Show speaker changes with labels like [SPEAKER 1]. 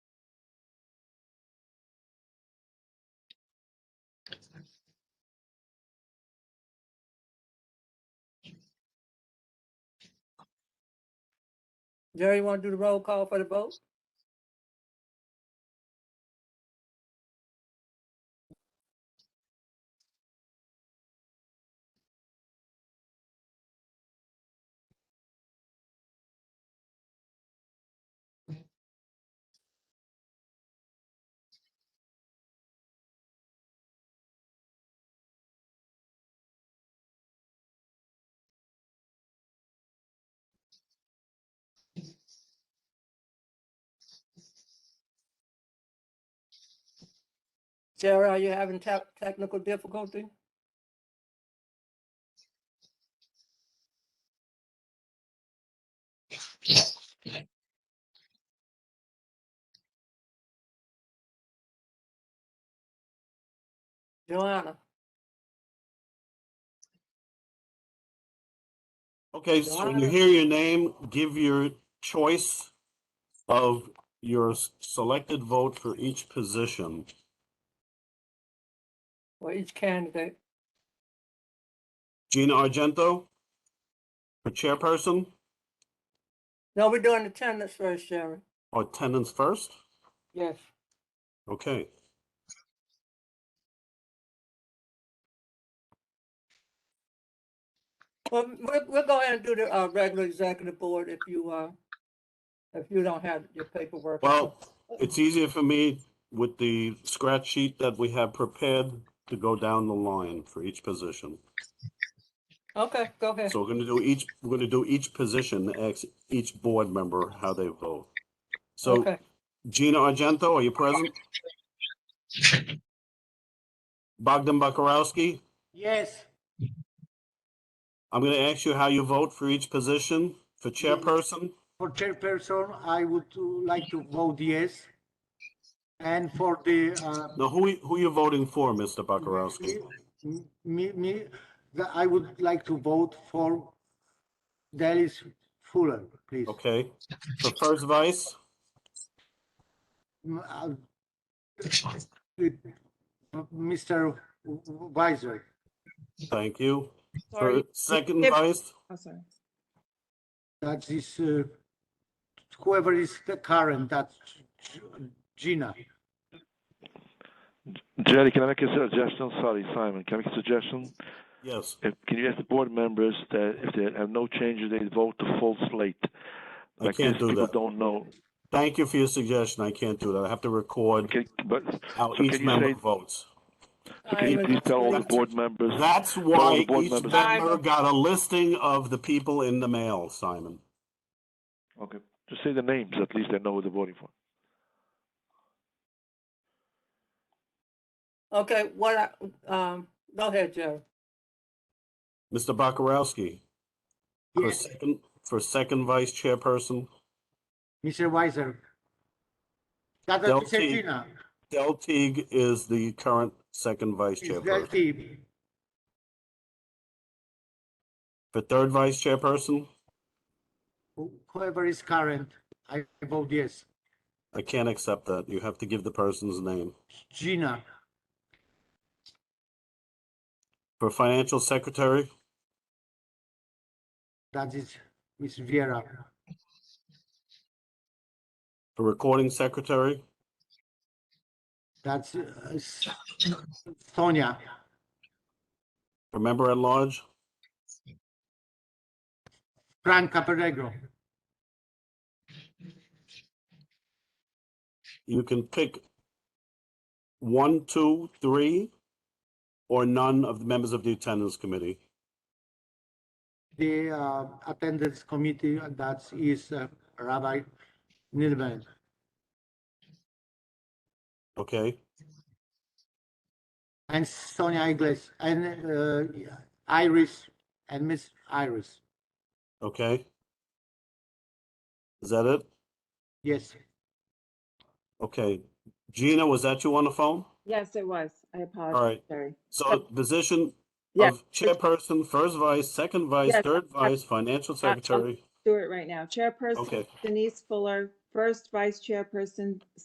[SPEAKER 1] Jerry, you want to do the roll call for the vote? Jerry, are you having tech, technical difficulty? Joanna,
[SPEAKER 2] Okay, so when you hear your name, give your choice of your s- selected vote for each position.
[SPEAKER 1] for each candidate,
[SPEAKER 2] Gina Argento for chairperson
[SPEAKER 1] no, we're doing attendance first, Jerry.
[SPEAKER 2] or attendance first?
[SPEAKER 1] Yes.
[SPEAKER 2] Okay.
[SPEAKER 1] Well, we'll, we'll go ahead and do the, uh, regular executive board if you, uh, if you don't have your paperwork.
[SPEAKER 2] Well, it's easier for me with the scratch sheet that we have prepared to go down the line for each position.
[SPEAKER 1] Okay, go ahead.
[SPEAKER 2] So we're gonna do each, we're gonna do each position, ex, each board member, how they vote. So
[SPEAKER 1] Okay.
[SPEAKER 2] Gina Argento, are you present? Bogdan Bakarowski,
[SPEAKER 3] Yes,
[SPEAKER 2] I'm gonna ask you how you vote for each position. For chairperson,
[SPEAKER 3] for chairperson, I would uh, like to vote yes. And for the, uh,
[SPEAKER 2] now who, who you voting for, Mr. Bakarowski?
[SPEAKER 3] m- me, me, the- I would like to vote for Dallas Fuller, please.
[SPEAKER 2] Okay, for first vice,
[SPEAKER 3] M- uh, it- Mr. Weiser,
[SPEAKER 2] thank you. For
[SPEAKER 4] Sorry.
[SPEAKER 2] second
[SPEAKER 4] If-
[SPEAKER 2] vice,
[SPEAKER 4] Oh, sorry.
[SPEAKER 3] that is, uh, whoever is the current, that's Gina.
[SPEAKER 5] Jerry, can I make a suggestion? Sorry, Simon, can I make a suggestion?
[SPEAKER 2] yes,
[SPEAKER 5] If, can you ask the board members that if they have no changes, they vote the full slate?
[SPEAKER 2] I
[SPEAKER 5] Like
[SPEAKER 2] can't
[SPEAKER 5] this,
[SPEAKER 2] do
[SPEAKER 5] people
[SPEAKER 2] that.
[SPEAKER 5] don't know.
[SPEAKER 2] Thank you for your suggestion. I can't do that. I have to record
[SPEAKER 5] Okay, but
[SPEAKER 2] how
[SPEAKER 5] so
[SPEAKER 2] each
[SPEAKER 5] can you
[SPEAKER 2] member
[SPEAKER 5] say?
[SPEAKER 2] votes.
[SPEAKER 5] So can you
[SPEAKER 1] Simon,
[SPEAKER 5] please tell all the
[SPEAKER 2] that's-
[SPEAKER 5] board members?
[SPEAKER 2] That's
[SPEAKER 5] all
[SPEAKER 2] why
[SPEAKER 5] the board
[SPEAKER 2] each
[SPEAKER 5] members-
[SPEAKER 2] member got a listing of the people in the mail, Simon.
[SPEAKER 5] Okay, just say the names, at least they know who they're voting for.
[SPEAKER 1] Okay, what, I- um, go ahead, Jerry.
[SPEAKER 2] Mr. Bakarowski, for
[SPEAKER 3] Yes,
[SPEAKER 2] second, for second vice chairperson,
[SPEAKER 3] Mr. Weiser. That
[SPEAKER 2] Del
[SPEAKER 3] is Mr.
[SPEAKER 2] T.
[SPEAKER 3] Gina,
[SPEAKER 2] Del Teague is the current second vice
[SPEAKER 3] is that
[SPEAKER 2] chairperson.
[SPEAKER 3] the
[SPEAKER 2] For third vice chairperson,
[SPEAKER 3] Who- Whoever is current, I vote yes.
[SPEAKER 2] I can't accept that. You have to give the person's name.
[SPEAKER 3] Gina,
[SPEAKER 2] For financial secretary,
[SPEAKER 3] that is Miss Vera.
[SPEAKER 2] for recording secretary,
[SPEAKER 3] That's uh, S- Sonia,
[SPEAKER 2] for member at large,
[SPEAKER 3] Frank Caperegro.
[SPEAKER 2] you can pick one, two, three, or none of the members of the attendance committee.
[SPEAKER 3] The uh, attendance committee, that is uh, Rabbi Nilman.
[SPEAKER 2] Okay,
[SPEAKER 3] And Sonia Iglesias, and uh, Iris, and Miss Iris.
[SPEAKER 2] okay. Is that it?
[SPEAKER 3] Yes,
[SPEAKER 2] Okay. Gina, was that you on the phone?
[SPEAKER 4] Yes, it was. I
[SPEAKER 2] All
[SPEAKER 4] apologize,
[SPEAKER 2] right.
[SPEAKER 4] Jerry.
[SPEAKER 2] So position
[SPEAKER 4] Yeah.
[SPEAKER 2] of chairperson, first vice, second vice,
[SPEAKER 4] Yes.
[SPEAKER 2] third vice, financial
[SPEAKER 4] I'll-
[SPEAKER 2] secretary.
[SPEAKER 4] Do it right now. Chairperson
[SPEAKER 2] Okay.
[SPEAKER 4] Denise Fuller, first vice chairperson